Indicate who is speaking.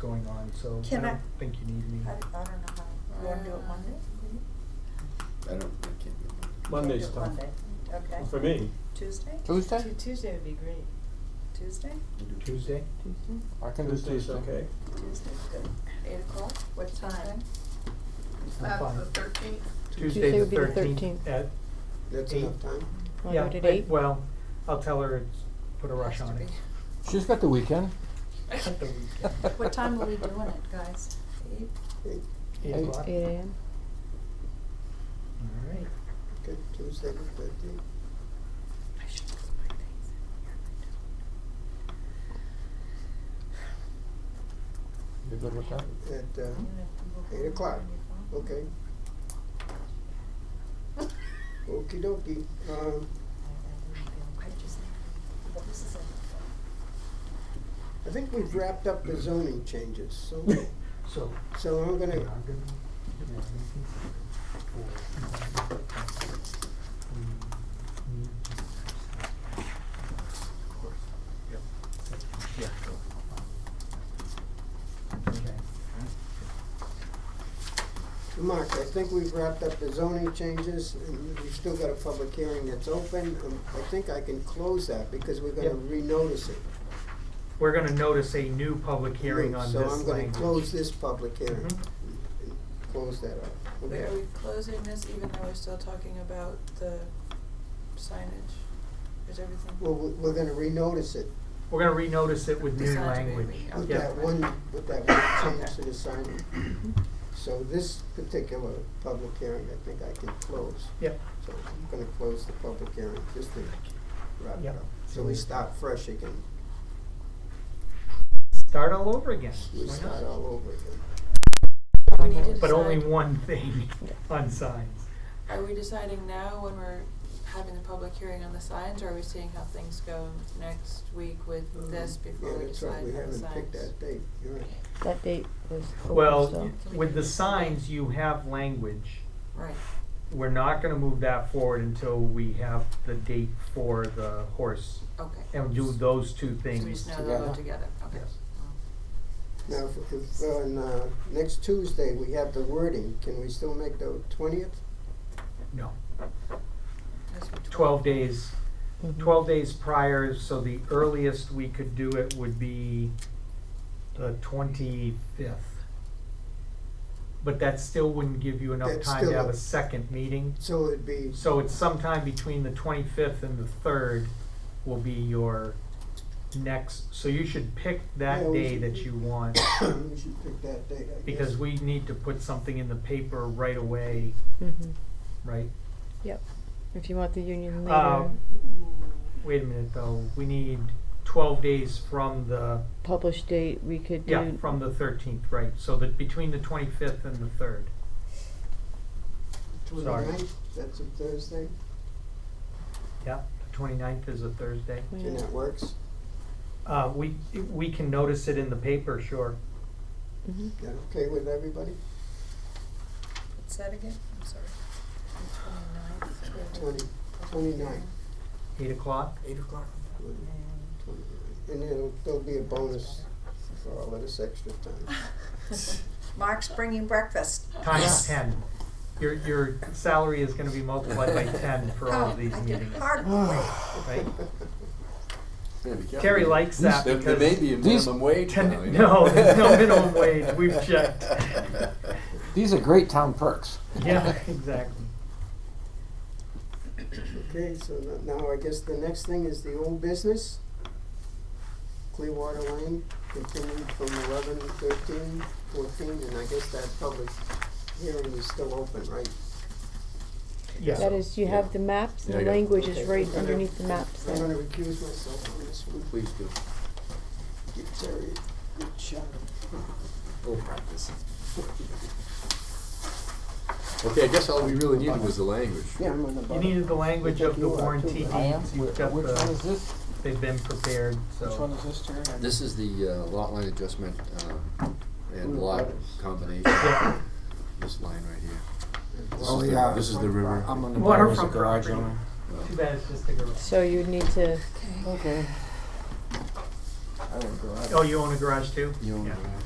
Speaker 1: going on, so I
Speaker 2: Can I-
Speaker 1: don't think you need me.
Speaker 2: I, I don't know how, you wanna do it Monday?
Speaker 3: I don't, I can't remember.
Speaker 4: Monday's
Speaker 2: Can't do it
Speaker 4: tough.
Speaker 2: Monday, okay.
Speaker 4: For me,
Speaker 2: Tuesday,
Speaker 5: Tuesday?
Speaker 6: Tu- Tuesday would be great.
Speaker 2: Tuesday,
Speaker 1: Tuesday?
Speaker 5: I can do Tuesday.
Speaker 4: Tuesday's okay.
Speaker 2: Tuesday's good, eight o'clock, what time?
Speaker 1: I'm
Speaker 7: Uh,
Speaker 1: fine.
Speaker 7: the thirteenth,
Speaker 1: Tuesday
Speaker 8: would be the
Speaker 1: the thirteenth
Speaker 8: 13th.
Speaker 1: at,
Speaker 3: That's
Speaker 1: Eight.
Speaker 3: enough time.
Speaker 8: Wanna
Speaker 1: yeah,
Speaker 8: do it at
Speaker 1: I-
Speaker 8: eight?
Speaker 1: well, I'll tell her it's, put a rush on it.
Speaker 5: She's got the weekend.
Speaker 1: At the weekend.
Speaker 2: What time are we doing it, guys? Eight,
Speaker 1: Eight
Speaker 5: Eight.
Speaker 1: o'clock?
Speaker 8: Eight AM?
Speaker 1: All right.
Speaker 3: Okay, Tuesday the thirteenth.
Speaker 2: I should put my things in
Speaker 5: You good with that?
Speaker 3: At, uh,
Speaker 2: here. I don't-
Speaker 3: Eight o'clock. okay. Okey dokey, um,
Speaker 2: I just, well, this is a,
Speaker 3: I think we've wrapped up the zoning changes, so,
Speaker 1: So,
Speaker 3: so I'm
Speaker 1: we are
Speaker 3: gonna,
Speaker 1: gonna, do a meeting for, um, we need to have some- Of course. Yep. Yeah. Okay.
Speaker 3: Mark, I think we've wrapped up the zoning changes, and we've still got a public hearing that's open. Um, I think I can close that, because we're gonna
Speaker 1: Yep.
Speaker 3: renotice it.
Speaker 1: We're gonna notice a new public hearing on this
Speaker 3: So
Speaker 1: language.
Speaker 3: I'm gonna close this public hearing,
Speaker 1: Mhm.
Speaker 3: and close that up. Okay.
Speaker 7: are we closing this even though we're still talking about the signage? Is everything?
Speaker 3: Well, we- we're gonna renotice it
Speaker 1: We're gonna renotice it with new
Speaker 7: Besides,
Speaker 1: language.
Speaker 7: we-
Speaker 3: with
Speaker 1: Yeah.
Speaker 3: that one, with that one change to the sign. So this particular public hearing, I think I can close.
Speaker 1: Yep.
Speaker 3: So I'm gonna close the public hearing, just to wrap it
Speaker 1: Yep.
Speaker 3: up. So we start fresh again.
Speaker 1: Start all over again. Why
Speaker 3: We
Speaker 1: not?
Speaker 3: start all over again.
Speaker 7: We need to
Speaker 1: But only
Speaker 7: decide-
Speaker 1: one thing on signs.
Speaker 7: Are we deciding now when we're having the public hearing on the signs, or are we seeing how things go next week with this before
Speaker 3: Um, Yeah,
Speaker 7: we
Speaker 3: that's
Speaker 7: decide
Speaker 3: right,
Speaker 7: on
Speaker 3: we
Speaker 7: the signs?
Speaker 3: haven't picked that date, you're right.
Speaker 8: That date was open,
Speaker 1: Well,
Speaker 8: so-
Speaker 7: Can we
Speaker 1: with
Speaker 7: do
Speaker 1: the
Speaker 7: this?
Speaker 1: signs, you have language.
Speaker 7: Right,
Speaker 1: We're not gonna move that forward until we have the date for the horse
Speaker 7: okay.
Speaker 1: and do those two
Speaker 7: So we
Speaker 1: things.
Speaker 7: just now they'll go
Speaker 3: together.
Speaker 7: together, okay.
Speaker 1: Yes.
Speaker 3: Now, if, if, on, uh, next Tuesday, we have the wording, can we still make the twentieth?
Speaker 1: No,
Speaker 7: That's what
Speaker 1: twelve days,
Speaker 8: Mhm.
Speaker 1: twelve days prior, so the earliest we could do it would be the twenty-fifth. But that still wouldn't give you enough
Speaker 3: That's
Speaker 1: time to
Speaker 3: still-
Speaker 1: have a second meeting.
Speaker 3: So it'd be,
Speaker 1: So it's sometime between the twenty-fifth and the third will be your next, so you should pick
Speaker 3: Yeah,
Speaker 1: that
Speaker 3: we
Speaker 1: day
Speaker 3: should-
Speaker 1: that you want,
Speaker 3: we should pick that date, I guess.
Speaker 1: because we need to put something in the paper right away,
Speaker 8: Mhm.
Speaker 1: right?
Speaker 8: Yep, if you want the union later,
Speaker 1: Um, Wait a minute though, we need twelve days from the,
Speaker 8: published date, we could do.
Speaker 1: yeah, from the thirteenth, right, so that between the twenty-fifth and the third. sorry.
Speaker 3: 29th? that's a Thursday,
Speaker 1: Yeah, the twenty-ninth is a Thursday.
Speaker 8: Wait,
Speaker 3: and that works,
Speaker 1: Uh, we, we can notice it in the paper, sure.
Speaker 8: mhm.
Speaker 3: that okay with everybody?
Speaker 2: What's that again? I'm sorry.
Speaker 7: twelve.
Speaker 3: Twenty, twenty-nine.
Speaker 1: Eight o'clock?
Speaker 3: Eight o'clock. And it'll, there'll be a bonus for all of this extra time.
Speaker 2: Mark's bringing breakfast.
Speaker 1: times ten. Your, your salary is gonna be multiplied by ten for all
Speaker 2: Oh,
Speaker 1: of these
Speaker 2: I can
Speaker 1: meetings,
Speaker 2: hardly wait.
Speaker 1: right?
Speaker 3: Yeah, be careful.
Speaker 1: Terry likes that
Speaker 3: There- there
Speaker 1: because.
Speaker 3: may be a
Speaker 5: These-
Speaker 3: minimum wage
Speaker 1: ten-
Speaker 3: now, you know.
Speaker 1: No, there's no minimum wage, we've checked.
Speaker 5: These are great town perks.
Speaker 1: Yeah, exactly.
Speaker 3: Okay, so no- now I guess the next thing is the old business. Clearwater Lane continued from eleven, thirteen, fourteen, and I guess that public hearing is still open, right?
Speaker 8: That
Speaker 1: Yeah,
Speaker 8: is, you have the maps,
Speaker 3: Yeah,
Speaker 8: the
Speaker 3: I got it.
Speaker 8: language
Speaker 3: Okay,
Speaker 8: is right
Speaker 3: I'm gonna-
Speaker 8: underneath the maps
Speaker 3: I'm
Speaker 8: there.
Speaker 3: gonna recuse myself on this one.
Speaker 9: Please do.
Speaker 3: Give Terry a good shot.
Speaker 9: We'll practice. Okay, I guess all we really needed was the language.
Speaker 3: Yeah, I'm on the
Speaker 1: you
Speaker 3: bottom.
Speaker 1: needed the language of the
Speaker 3: You are too.
Speaker 1: warranty
Speaker 5: I am.
Speaker 1: deeds,
Speaker 5: Wh-
Speaker 1: you've got
Speaker 5: Which one is
Speaker 1: the,
Speaker 5: this?
Speaker 1: they've been prepared, so.
Speaker 5: Which one is this, Terry? I-
Speaker 9: This is the uh, lot line adjustment uh, and
Speaker 3: Ooh,
Speaker 9: lot
Speaker 3: butters.
Speaker 9: combination, this line right here. This
Speaker 5: Oh,
Speaker 9: is the-
Speaker 5: yeah.
Speaker 9: This is the river.
Speaker 5: I'm on the
Speaker 1: Water
Speaker 5: bottom of the
Speaker 1: from
Speaker 5: garage
Speaker 1: property.
Speaker 5: owner.
Speaker 9: Uh,
Speaker 1: Too bad it's just a garage.
Speaker 8: So you'd need to,
Speaker 5: Okay. I own a garage.
Speaker 1: Oh, you own a garage too?
Speaker 9: You own
Speaker 1: Yeah.
Speaker 9: the garage.